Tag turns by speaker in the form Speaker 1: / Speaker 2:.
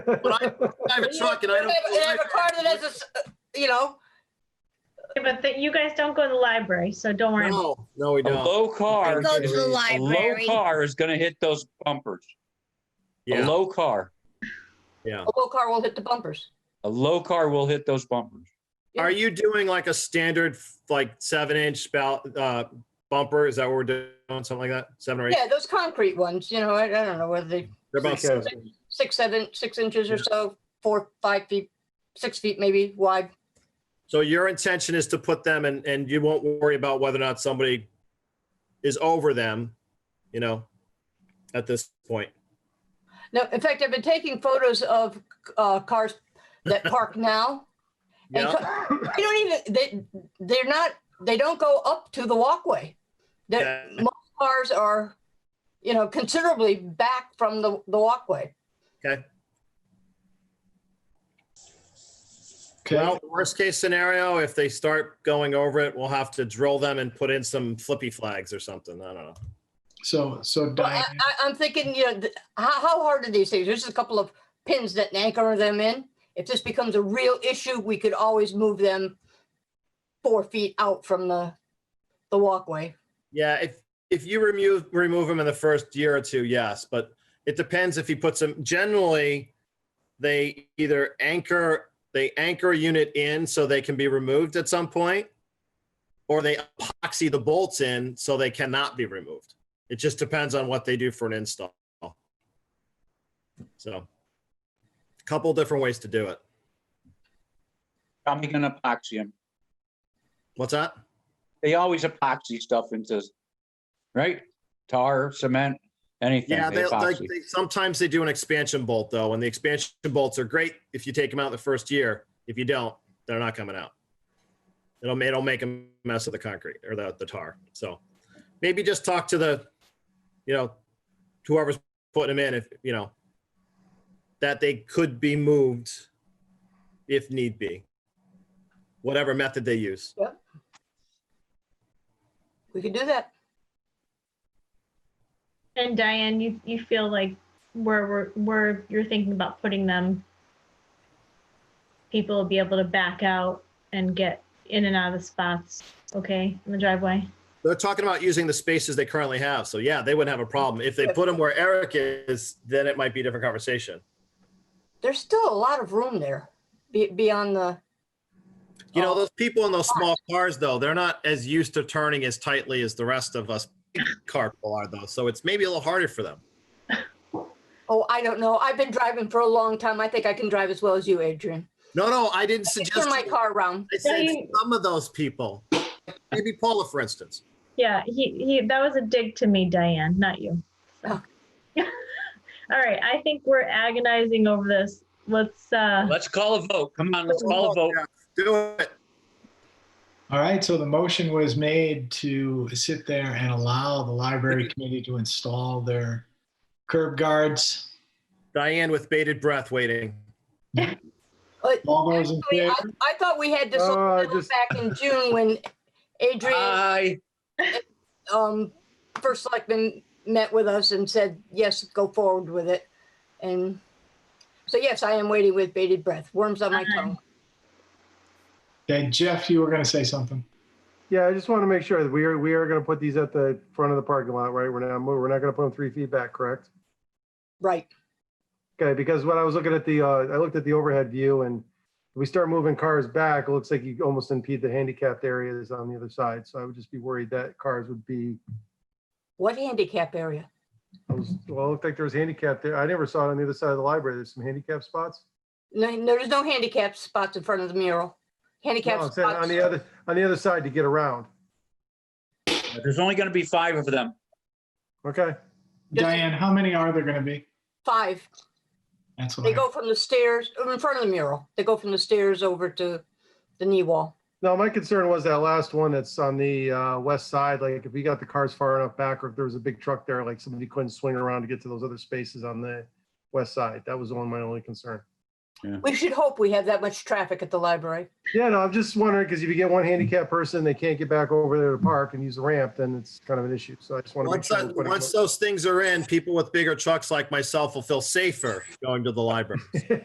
Speaker 1: But I I have a truck and I don't.
Speaker 2: And I have a car that has a, s- you know,
Speaker 3: Yeah, But that- you guys don't go to the library, so don't worry. about
Speaker 1: No, no, we
Speaker 4: A
Speaker 1: don't.
Speaker 4: low car,
Speaker 5: Go to the
Speaker 4: a low
Speaker 5: library.
Speaker 4: car is gonna hit those bumpers. A
Speaker 1: Yeah,
Speaker 4: low car,
Speaker 1: yeah.
Speaker 2: a little car will hit the bumpers.
Speaker 4: a low car will hit those bumpers.
Speaker 1: Are you doing like a standard, like seven inch spout, uh, bumper? Is that what we're doing? Something like that? Seven or eight?
Speaker 2: Yeah, those concrete ones, you know, I, I don't know whether they,
Speaker 1: They're about
Speaker 2: Six.
Speaker 1: seven.
Speaker 2: six, seven, six inches or
Speaker 1: Yeah.
Speaker 2: so, four, five feet, six feet maybe wide.
Speaker 1: So your intention is to put them and, and you won't worry about whether or not somebody is over them, you know, at this point.
Speaker 2: No, in fact, I've been taking photos of, uh, cars that park now. And
Speaker 1: Yeah,
Speaker 2: co- they don't even, they, they're not, they don't go up to the walkway. They're,
Speaker 1: Okay.
Speaker 2: most cars are, you know, considerably back from the, the walkway.
Speaker 1: okay.
Speaker 6: Okay,
Speaker 1: Well, worst case scenario, if they start going over it, we'll have to drill them and put in some flippy flags or something. I don't know.
Speaker 6: so, so
Speaker 2: Well, I,
Speaker 6: Diane,
Speaker 2: I, I'm thinking, you know, th- how, how hard are these things? There's just a couple of pins that anchor them in. If this becomes a real issue, we could always move them four feet out from the, the walkway.
Speaker 1: Yeah, if, if you remove, remove them in the first year or two, yes, but it depends if he puts them, generally, they either anchor, they anchor a unit in so they can be removed at some point, or they epoxy the bolts in so they cannot be removed. It just depends on what they do for an install. So, a couple different ways to do it.
Speaker 4: I'm gonna epoxy them.
Speaker 1: What's that?
Speaker 4: They always epoxy stuff into, right? Tar, cement, anything.
Speaker 1: Yeah,
Speaker 4: they
Speaker 1: they, like,
Speaker 4: epoxy.
Speaker 1: they, sometimes they do an expansion bolt though, and the expansion bolts are great if you take them out the first year. If you don't, they're not coming out. It'll, ma- it'll make a mess of the concrete or the, the tar. So maybe just talk to the, you know, whoever's putting them in, if, you know, that they could be moved if need be, whatever method they use.
Speaker 2: We could do that.
Speaker 3: it. And Diane, you, you feel like where, we're where you're thinking about putting them, people will be able to back out and get in and out of the spots, okay, in the driveway?
Speaker 1: They're talking about using the spaces they currently have. So yeah, they wouldn't have a problem. If they put them where Eric is, then it might be a different conversation.
Speaker 2: There's still a lot of room there be, beyond the,
Speaker 1: You know,
Speaker 2: Oh.
Speaker 1: those people in those small cars, though, they're not as used to turning as tightly as the rest of us big car people are, though. So it's maybe a little harder for them.
Speaker 2: oh, I don't know. I've been driving for a long time. I think I can drive as well as you, Adrian.
Speaker 1: No, no, I didn't
Speaker 2: I can
Speaker 1: suggest.
Speaker 2: turn my
Speaker 1: you.
Speaker 2: car around.
Speaker 1: I said
Speaker 3: you-
Speaker 1: some of those people, maybe Paula, for instance.
Speaker 3: Yeah, he, he, that was a dig to me, Diane, not you. All
Speaker 2: Oh.
Speaker 3: right, I think we're agonizing over this. Let's, uh,
Speaker 4: Let's call a vote. Come on, let's call a vote.
Speaker 1: Do it.
Speaker 6: all right, so the motion was made to sit there and allow the library committee to install their curb guards.
Speaker 1: Diane with bated breath waiting.
Speaker 2: But
Speaker 6: All those in
Speaker 2: I,
Speaker 6: favor?
Speaker 2: I thought we had this
Speaker 7: Oh, I
Speaker 2: all settled
Speaker 7: just-
Speaker 2: back in June when Adrian
Speaker 4: Aye.
Speaker 2: um, first selectman met with us and said, yes, go forward with it. And so yes, I am waiting with bated breath, worms on my tongue.
Speaker 6: Okay, Jeff, you were going to say something.
Speaker 7: Yeah, I just want to make sure that we are, we are going to put these at the front of the parking lot, right? We're not, we're not going to put them three feet back, correct?
Speaker 2: Right.
Speaker 7: Okay, because when I was looking at the, uh, I looked at the overhead view and if we start moving cars back, it looks like you almost impede the handicapped areas on the other side. So I would just be worried that cars would be,
Speaker 2: What handicap area?
Speaker 7: I was- well, it looked like there was handicap there. I never saw it on the other side of the library. There's some handicap spots.
Speaker 2: No, no, there's no handicap spots in front of the mural.
Speaker 7: No,
Speaker 2: Handicap
Speaker 7: I'm saying
Speaker 2: spots.
Speaker 7: on the other, on the other side to get around.
Speaker 4: There's only gonna be five of them.
Speaker 7: Okay,
Speaker 2: Just-
Speaker 6: Diane, how many are there going to be?
Speaker 2: Five.
Speaker 6: That's what
Speaker 2: They
Speaker 6: I,
Speaker 2: go from the stairs, in front of the mural. They go from the stairs over to the knee wall.
Speaker 7: No, my concern was that last one that's on the uh, west side, like if we got the cars far enough back or if there was a big truck there, like somebody couldn't swing around to get to those other spaces on the west side. That was the one, my only concern.
Speaker 2: We should hope we have that much traffic at the library.
Speaker 7: Yeah, no, I'm just wondering, because if you get one handicapped person, they can't get back over there to park and use the ramp, then it's kind of an issue. So I just want to make
Speaker 1: Once,
Speaker 7: sure.
Speaker 1: that-
Speaker 7: we're putting-
Speaker 1: once those things are in, people with bigger trucks like myself will feel safer going to the library.